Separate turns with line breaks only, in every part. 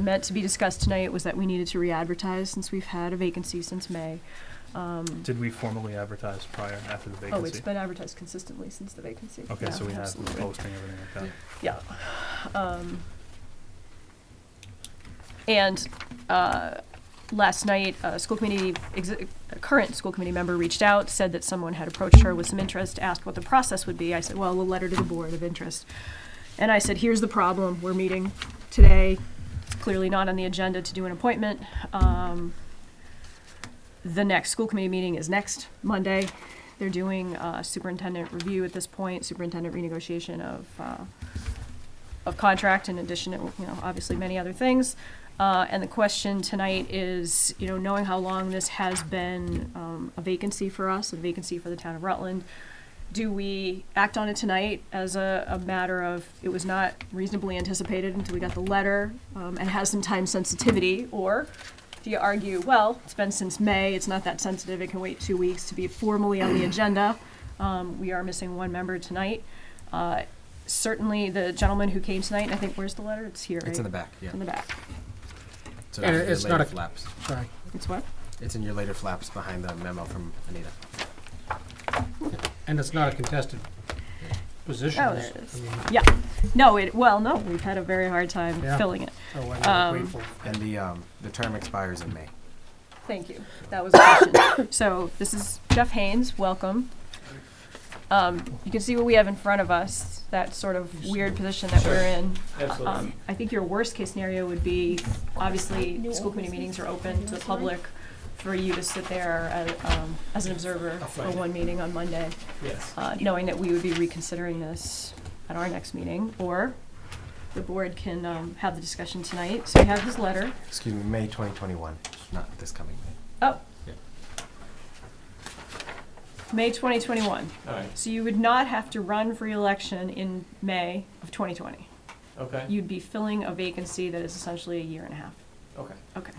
meant to be discussed tonight was that we needed to re-advertise since we've had a vacancy since May. Um,
Did we formally advertise prior and after the
Oh, it's
vacancy?
been advertised consistently since the vacancy.
Okay,
Yeah,
so we have the
absolutely.
posting, everything like that.
Yeah. Um, and uh, last night, a school committee, ex- a current school committee member reached out, said that someone had approached her with some interest, asked what the process would be. I said, well, a letter to the board of interest. And I said, here's the problem. We're meeting today. It's clearly not on the agenda to do an appointment. Um, the next school committee meeting is next Monday. They're doing uh, superintendent review at this point, superintendent renegotiation of uh, of contract in addition to, you know, obviously many other things. Uh, and the question tonight is, you know, knowing how long this has been, um, a vacancy for us, a vacancy for the town of Rutland, do we act on it tonight as a, a matter of, it was not reasonably anticipated until we got the letter, um, and has some time sensitivity, or do you argue, well, it's been since May, it's not that sensitive, it can wait two weeks to be formally on the agenda, um, we are missing one member tonight. Uh, certainly the gentleman who came tonight, and I think, where's the letter? It's here, right?
It's in the back, yeah.
In the back.
It's in
And
your
it's
later
not a-
flaps.
Sorry.
It's what?
It's in your later flaps behind the memo from Anita.
And it's not a contested position.
Oh,
is-
there it is.
I mean,
Yeah. No, it, well, no, we've had a very hard time
Yeah.
filling it.
so
Um,
I'm grateful.
And the, um, the term expires in May.
Thank you. That was a question. So this is Jeff Haynes, welcome. Um, you can see what we have in front of us, that sort of weird position that we're in. Um, I think your worst-case scenario would be, obviously, school committee meetings are open to the public for you to sit there as, um, as an observer for one meeting on Monday.
Yes.
uh, knowing that we would be reconsidering this at our next meeting, or the board can um, have the discussion tonight. So we have his letter.
Excuse me, May 2021, not this coming May.
Oh.
Yeah.
May 2021.
Alright,
So you would not have to run for election in May of 2020.
okay,
You'd be filling a vacancy that is essentially a year and a half.
okay.
Okay.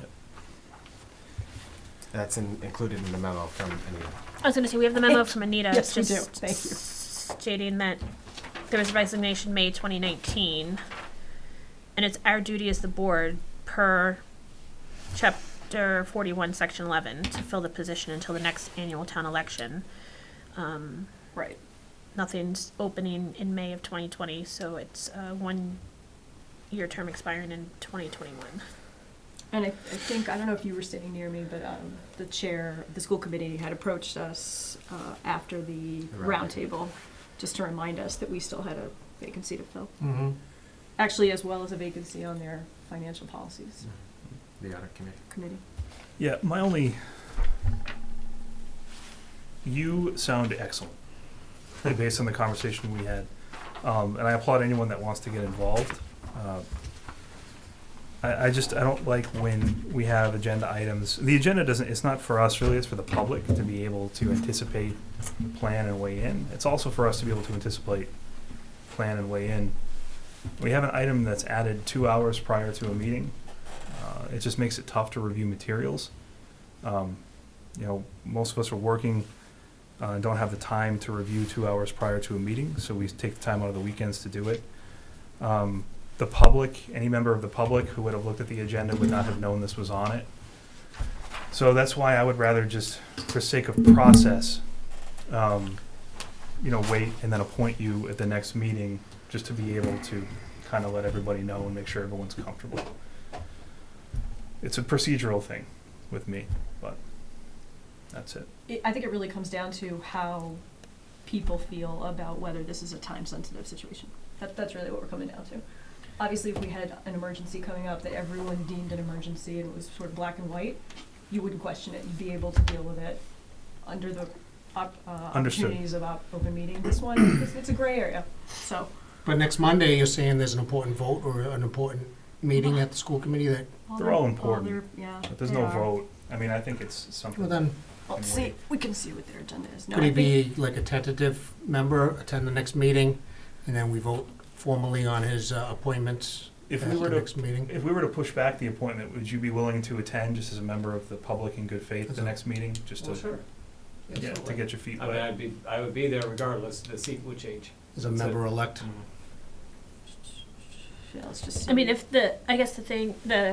That's in, included in the memo from Anita.
I was going to say we have the memo from Anita.
Yes, we do.
just
Thank you.
Stating that there was resignation May 2019, and it's our duty as the board per chapter 41, section 11, to fill the position until the next annual town election. Um,
Right.
nothing's opening in May of 2020, so it's a one-year term expiring in 2021.
And I, I think, I don't know if you were sitting near me, but um, the chair of the school committee had approached us uh, after the
The round
roundtable, just to remind us that we still had a vacancy to fill.
Mm-hmm.
Actually, as well as a vacancy on their financial policies
The audit committee.
committee.
Yeah, my only. You sound excellent, based on the conversation we had, um, and I applaud anyone that wants to get involved. Uh, I, I just I don't like when we have agenda items. The agenda doesn't. It's not for us really. It's for the public to be able to anticipate, plan, and weigh in. It's also for us to be able to anticipate, plan, and weigh in. We have an item that's added two hours prior to a meeting. Uh, it just makes it tough to review materials. Um, you know, most of us are working, uh, and don't have the time to review two hours prior to a meeting, so we take the time out of the weekends to do it. Um, the public, any member of the public who would have looked at the agenda would not have known this was on it. So that's why I would rather just, for sake of process, um, you know, wait and then appoint you at the next meeting, just to be able to kind of let everybody know and make sure everyone's comfortable it's a procedural thing with me, but that's it.
It, I think it really comes down to how people feel about whether this is a time-sensitive situation. That, that's really what we're coming down to. Obviously, if we had an emergency coming up that everyone deemed an emergency and it was sort of black and white, you wouldn't question it, you'd be able to deal with it under the op, uh,
Understood.
opportunities of op, open meeting. This one, it's, it's a gray area, so.
But next Monday, you're saying there's an important vote or an important meeting at the school committee that,
They're all important,
they're- Yeah.
But there's
they
no
are.
vote. I mean, I think it's
well
something.
then,
Well, Oh, see, we can see what their agenda is. No,
could
I
he
think-
be like a tentative member, attend the next meeting, and then we vote formally on his uh, appointments
If
at
we were
the
to,
next meeting?
if we were to push back the appointment, would you be willing to attend just as a member of the public in good faith the
Sure.
next meeting, just to, yeah, to get your feet
I mean,
wet?
I'd be, I would be there regardless, the seat would change.
As a
Mm-hmm.
member-elect?
Yeah, let's just see.
I mean, if the I guess the thing the